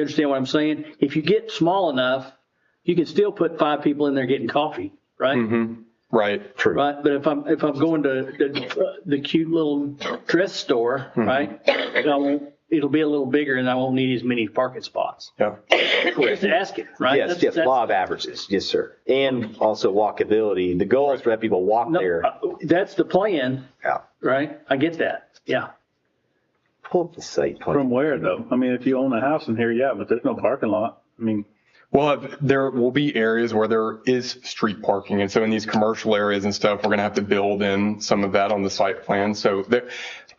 You understand what I'm saying? If you get small enough, you can still put five people in there getting coffee, right? Mm-hmm. Right. True. Right, but if I'm, if I'm going to the, the cute little dress store, Mm-hmm. right? I won't, it'll be a little bigger and I won't need as many parking spots. Yeah. Just ask it, right? Yes, That's- yes, that's- law of averages. Yes, sir. And also walkability. The goal is to have people walk no, there. uh, That's the plan, Yeah. right? I get that, yeah. Pull up the site From plan. where though? I mean, if you own a house in here, yeah, but there's no parking lot. I mean, Well, if- there will be areas where there is street parking. And so in these commercial areas and stuff, we're going to have to build in some of that on the site plan. So there,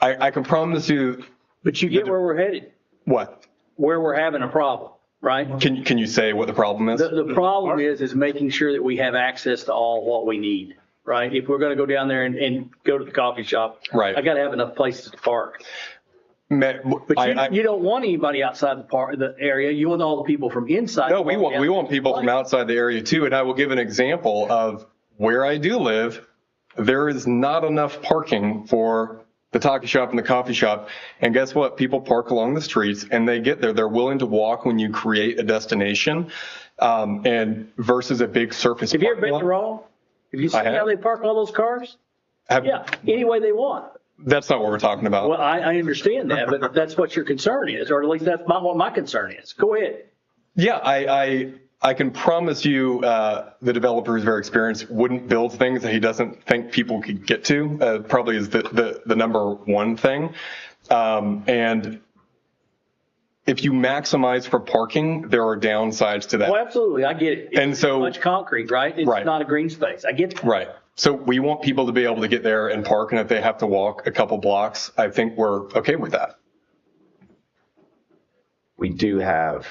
I, I can promise you But you get where we're headed, what? where we're having a problem, right? Can, can you say what the problem is? The, the problem is, is making sure that we have access to all what we need, right? If we're gonna go down there and, and go to the coffee shop. Right. I gotta have enough places to park. Ma- I- I- But you, you don't want anybody outside the park, the area. You want all the people from inside. No, we want, we want people from outside the area too. And I will give an example of where I do live. There is not enough parking for the taco shop and the coffee shop. And guess what? People park along the streets and they get there. They're willing to walk when you create a destination. Um, and versus a big surface. Have you ever parking been to lot. Rome? Have you seen have. Mm-hmm. how they park all those cars? Have- Yeah, any way they want. That's not what we're talking about. Well, I, I understand that, but that's what your concern is, or at least that's not what my concern is. Go ahead. Yeah, I, I, I can promise you, uh, the developer who's very experienced wouldn't build things that he doesn't think people could get to, uh, probably is the, the, the number one thing. Um, and if you maximize for parking, there are downsides to Well, that. absolutely, I get it. It's And so- Much concrete, right? It's Right. not a green space. I get that. Right. So we want people to be able to get there and park and if they have to walk a couple blocks, I think we're okay with that. We do have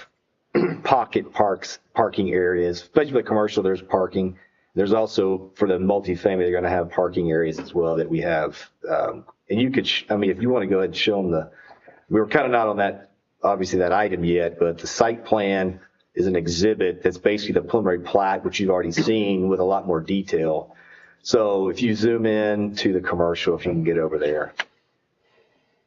pocket parks, parking areas, especially for commercial, there's parking. There's also for the multifamily, they're going to have parking areas as well that we have. Um, And you could, sh- I mean, if you want to go ahead and show them the, we were kind of not on that, obviously that item yet, but the site plan is an exhibit that's basically the preliminary plat, which you've already seen with a lot more detail. So if you zoom in to the commercial, if you can get over there.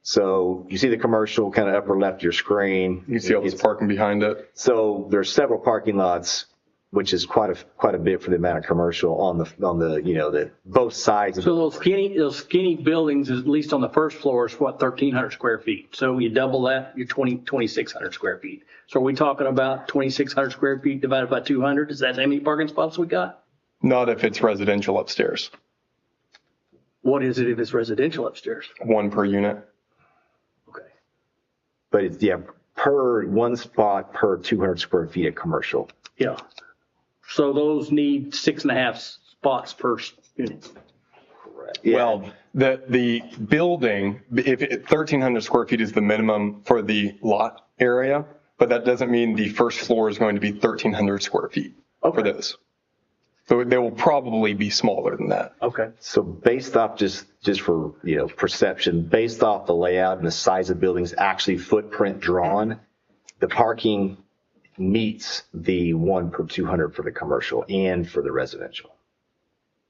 So you see the commercial kind of upper left of your screen. You can see all this parking behind it. So there's several parking lots, which is quite a, quite a bit for the amount of commercial on the, on the, you know, the, both sides. of So those skinny, those skinny buildings, at least on the first floor, is what, 1,300 square feet? So you double that, you're 20, 2,600 square feet. So are we talking about 2,600 square feet divided by 200? Is that how many parking spots we got? Not if it's residential upstairs, What is it if it's residential upstairs? one per unit. Okay. But it's, yeah, per, one spot per 200 square feet of commercial. Yeah. So those need six and a half spots per unit. Yeah. Well, the, the building, if it- 1,300 square feet is the minimum for the lot area, but that doesn't mean the first floor is going to be 1,300 square feet for Okay. those. So they will probably be smaller than that. Okay. So based off just, just for, you know, perception, based off the layout and the size of buildings, actually footprint drawn, the parking meets the one per 200 for the commercial and for the residential.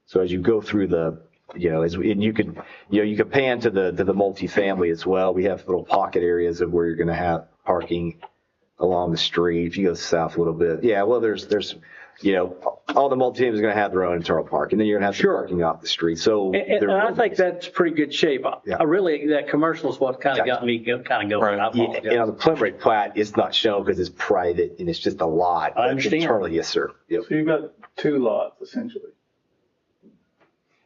So as you go through the, you know, as, and you could, you know, you could pan to the, to the multifamily as well. We have little pocket areas of where you're going to have parking along the street. If you go south a little bit, yeah, well, there's, there's, you know, all the multi-teams are going to have their own internal park and then you're going to have the parking off the street. So. And, and there I will think be- that's pretty good shape. I- Yeah. I really, that commercial is what kind of got me go- kind of going. Right. I Yeah, and apologize. on the preliminary plat, it's not shown because it's private and it's just a lot. I understand. Internally, yes, sir. Yep. so you've got two lots essentially.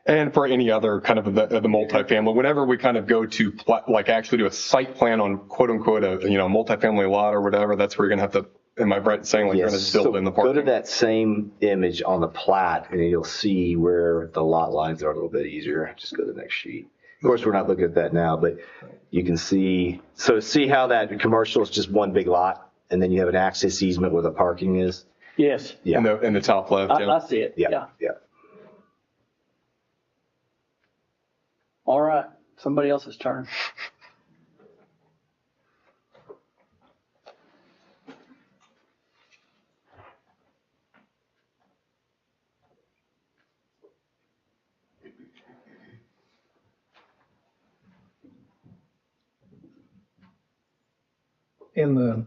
And for any other kind of the, of the multifamily, whenever we kind of go to pla- like actually do a site plan on quote unquote, a, you know, multifamily lot or whatever, that's where you're going to have to, am I right in saying like you're going Yes. to So build in the Go to parking? that same image on the plat and you'll see where the lot lines are a little bit easier. Just go to the next sheet. Of course, we're not looking at that now, but you can see, so see how that commercial is just one big lot and then you have an access easement where the parking is? Yes, In the, in the top left. I, yeah. I see it. Yeah, Yeah. yeah. All right. Somebody else's turn. in the